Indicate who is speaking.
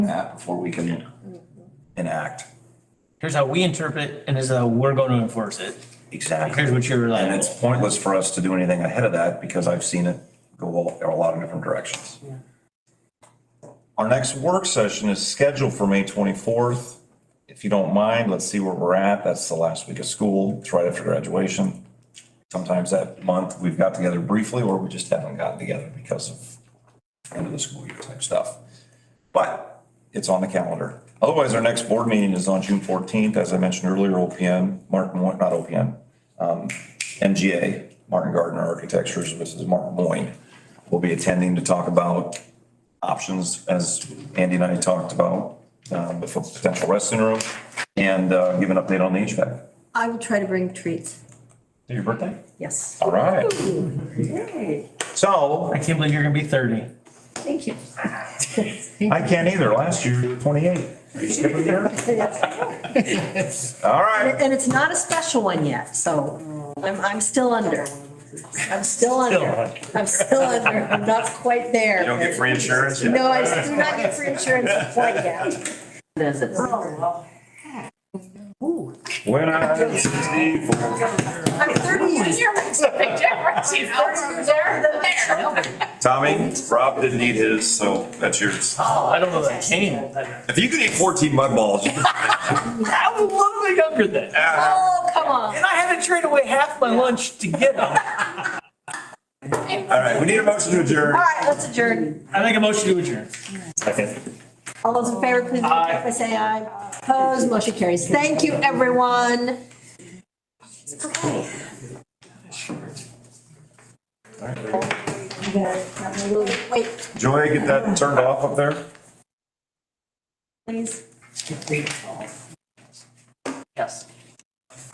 Speaker 1: that before we can enact.
Speaker 2: Here's how we interpret it and this is how we're going to enforce it.
Speaker 1: Exactly.
Speaker 2: Here's what you're
Speaker 1: And
Speaker 2: liable.
Speaker 1: it's pointless for us to do anything ahead of that because I've seen it go a a lot of different directions.
Speaker 3: Our next work session is scheduled for May twenty-fourth. If you don't mind, let's see where we're at. That's the last week of school. It's right after graduation.
Speaker 1: Sometimes that month, we've got together briefly or we just haven't gotten together because of end of the school year type stuff.
Speaker 3: But it's on the calendar. Otherwise, our next board meeting is on June fourteenth, as I mentioned earlier, OPM, Martin, Moy- not OPM, um, MGA, Martin Gardner Architectures, Mrs. Martin Moyne, will be attending to talk about options, as Andy and I talked about, um, with a potential restroom room, and, uh, give an update on the HVAC.
Speaker 4: I will try to bring treats,
Speaker 3: Your birthday?
Speaker 4: yes.
Speaker 3: All right. So,
Speaker 2: I can't believe you're gonna be thirty.
Speaker 4: Thank you.
Speaker 3: I can't either. Last year, you were twenty-eight. Are you skipping here? All right.
Speaker 4: And it's not a special one yet, so I'm, I'm still under. I'm still under. I'm still under. I'm not quite there.
Speaker 3: don't get free insurance yet?
Speaker 4: No, I do not get free insurance quite yet.
Speaker 3: When I was sixty-four.
Speaker 4: I'm thirty years.
Speaker 5: Here makes a big difference, you know, there, there.
Speaker 3: Tommy, Rob didn't eat his, so that's yours.
Speaker 2: Oh, I don't know that came.
Speaker 3: If you could eat fourteen mud balls, you could-
Speaker 2: I was literally younger then.
Speaker 4: Oh, come on.
Speaker 2: And I had to trade away half my lunch to get them.
Speaker 3: all right, we need a motion to adjourn.
Speaker 4: All right, let's adjourn.
Speaker 2: I make a motion to adjourn.
Speaker 4: All those in favor, please,
Speaker 2: Aye.
Speaker 4: if I say aye. Opposed, motion carries. Thank you, everyone. Okay. You guys have a little- Wait,
Speaker 3: Joy, get that turned off up there?
Speaker 4: please.
Speaker 2: Yes.